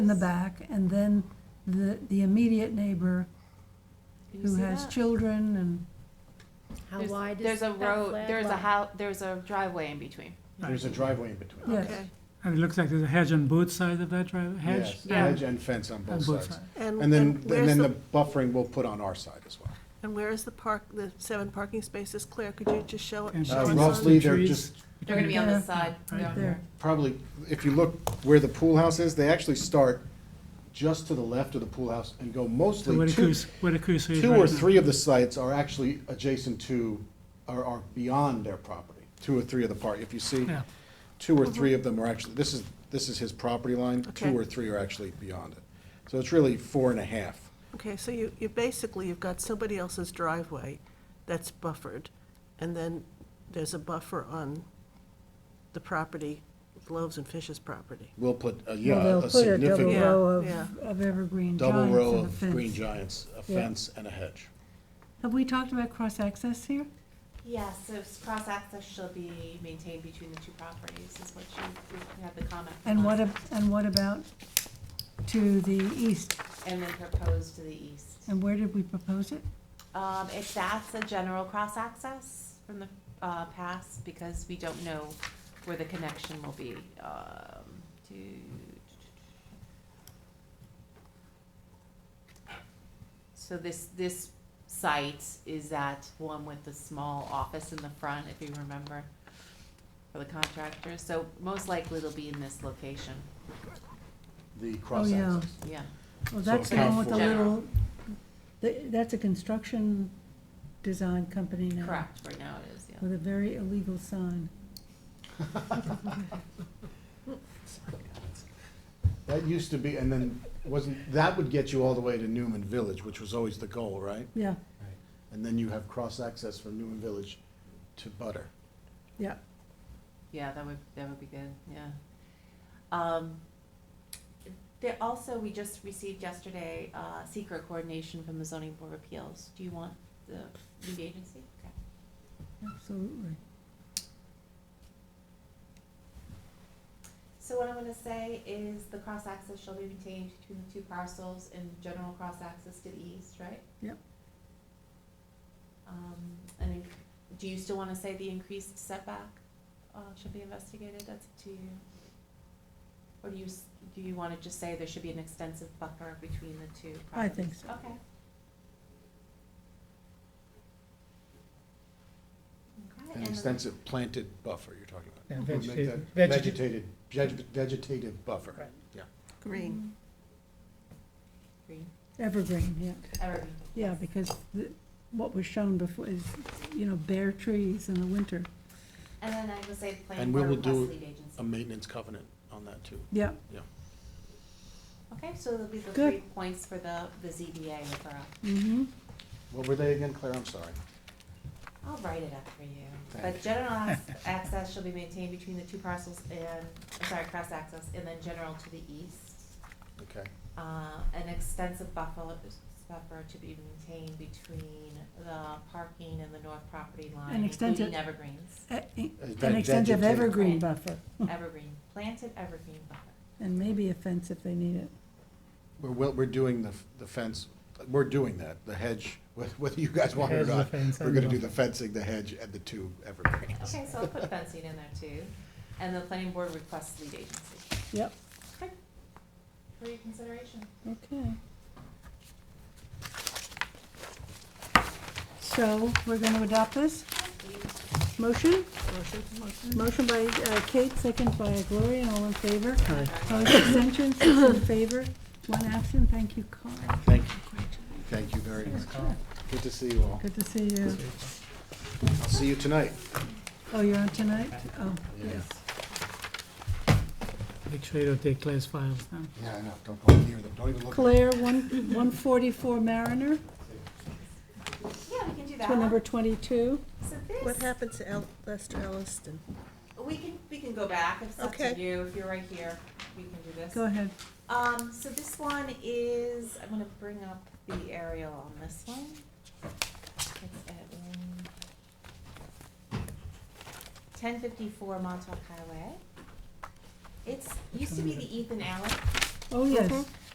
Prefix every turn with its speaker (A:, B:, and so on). A: in the back, and then the, the immediate neighbor
B: Can you
A: who
B: see
A: has
B: that?
A: children and,
C: How
B: There's-
C: wide is
B: There's a
C: that
B: road,
C: flag
B: there's a
C: line?
B: how, there's a driveway in between.
D: There's a driveway in between.
A: yes.
B: Okay.
E: And it looks like there's a hedge on both sides of that drive, hedge?
D: Yes,
B: Yeah.
D: Hedge and fence on
E: On
D: both
E: both
D: sides.
E: sides.
D: And then, and
F: where's
D: then the buffering we'll put on our side as well.
F: And where is the park, the seven parking spaces, Claire, could you just show it?
E: And
F: show
D: Uh,
F: us
E: between
F: on-
D: roughly,
E: the
D: they're
E: trees,
D: just-
B: They're gonna be on this
A: Yeah,
B: side.
E: right
B: down
A: there.
D: Probably, if you look where the pool house is, they actually start just to the left of the pool house and go
E: So where
D: mostly
E: the
D: two,
E: cursor, where the cursor is
D: two
E: right
D: or
E: now.
D: three of the sites are actually adjacent to, are, are beyond their property. Two or three of the part, if you see,
E: Yeah.
D: two or three of them are actually, this is, this is his property line.
F: Okay.
D: Two or three are actually beyond it. So it's really four and a half.
F: Okay, so you, you basically, you've got somebody else's driveway that's buffered, and then there's a buffer on the property, Loaves and Fishes property.
D: We'll put, a-
A: Well,
D: yeah,
A: they'll
D: a
A: put a double
D: significant.
F: Yeah,
A: row of,
F: yeah.
A: of evergreen
D: double
A: giants
D: row
A: and a
D: of green
A: fence.
D: giants, a
A: Yeah.
D: fence and a hedge.
A: Have we talked about cross-access here?
B: Yes, so s- cross-access shall be maintained between the two properties, is what you, you had the comment. from
A: And
B: us.
A: what, ab- and what about to the east?
B: And then proposed to the east.
A: And where did we propose it?
B: Um, if that's a general cross-access from the, uh, past, because we don't know where the connection will be, um, to. So this, this site is that one with the small office in the front, if you remember, for the contractors, so most likely it'll be in this location,
D: The
A: Oh,
D: cross access.
B: yeah.
A: Well,
D: So
A: that's the one
D: account
A: with the
B: for-
A: little, th- that's a construction design company now.
B: Correct, right now it is, yeah.
A: With a very illegal sign.
D: That used to be, and then wasn't, that would get you all the way to Newman Village, which was always the goal, right?
A: Yeah,
D: And then you have cross access from Newman Village to Butter.
A: yeah.
B: Yeah, that would, that would be good, yeah. Um, there also, we just received yesterday, uh, secret coordination from the zoning board of appeals. Do you want the lead agency? Okay.
A: Absolutely.
B: So what I'm gonna say is the cross-access shall be maintained between the two parcels and general cross-access to the east, right?
A: Yep.
B: Um, and then, do you still wanna say the increased setback, uh, should be investigated, that's up to you? Or do you, s- do you wanna just say there should be an extensive buffer between the two properties?
A: I think so.
B: Okay. Okay,
D: An
B: and the-
D: extensive planted buffer you're talking about.
E: And
D: We'll make
E: vegeta-
D: that
E: vegeta-
D: Vegetated, veg- vegetative buffer.
E: Right.
F: Green.
B: Green,
A: Evergreen, yeah.
B: evergreen.
A: Yeah, because the, what was shown before is, you know, bare trees in the winter.
B: And then I would say planning
D: And we
B: board
D: will
B: request
D: do
B: lead
D: A
B: agency.
D: maintenance covenant on that too.
A: Yeah,
B: Okay, so there'll be the
A: Good.
B: three points for the, the ZBA referral.
A: mm-hmm.
D: What were they again, Claire? I'm sorry.
B: I'll write it up for you. But
D: Thanks.
B: general ac- access shall be maintained between the two parcels and, I'm sorry, cross access, and then general to the east.
D: Okay.
B: Uh, an extensive buffer, buffer to be maintained between the parking and the north property line,
A: An extensive-
B: including evergreens.
A: An
D: Veg-
A: extensive
D: vegetative-
A: evergreen buffer,
B: Evergreen, planted evergreen buffer.
A: and maybe a fence if they need it.
D: We're, well, we're doing the, f- the fence, we're doing that, the hedge, wh- whether you guys want it or
E: Hedge, the
D: not.
E: fence,
D: We're
E: and
D: gonna
E: the-
D: do the fencing, the hedge, and the two evergreens.
B: Okay, so I'll put fencing in there too. And the planning board requests lead agency
A: Yep,
B: for your consideration.
A: okay. So, we're gonna adopt this? Motion? Motion. Motion by uh, Kate, second by Gloria, and all in favor? Aye. Opposed, abstentions, six in favor, one absent, thank you, Carl.
D: Thank, thank you very much. Good to see you all.
A: Good to see you.
D: I'll see you tonight.
A: Oh, you're on tonight? Oh,
D: Yeah.
A: yes.
E: Make sure you don't take class files now.
D: Yeah, I know, don't go near them, don't even look.
A: Claire, one, one forty-four Mariner,
B: Yeah, we can do that.
A: to number twenty-two.
B: So
F: What
B: this,
F: happened to El, Lester Elliston?
B: we can, we can go back, it's up to
F: Okay.
B: you, if you're right here, we can do this.
A: Go ahead.
B: Um, so this one is, I'm gonna bring up the aerial on this one. It's at um, ten fifty-four Montauk Highway. It's, used to be the Ethan Allen
A: Oh, yes.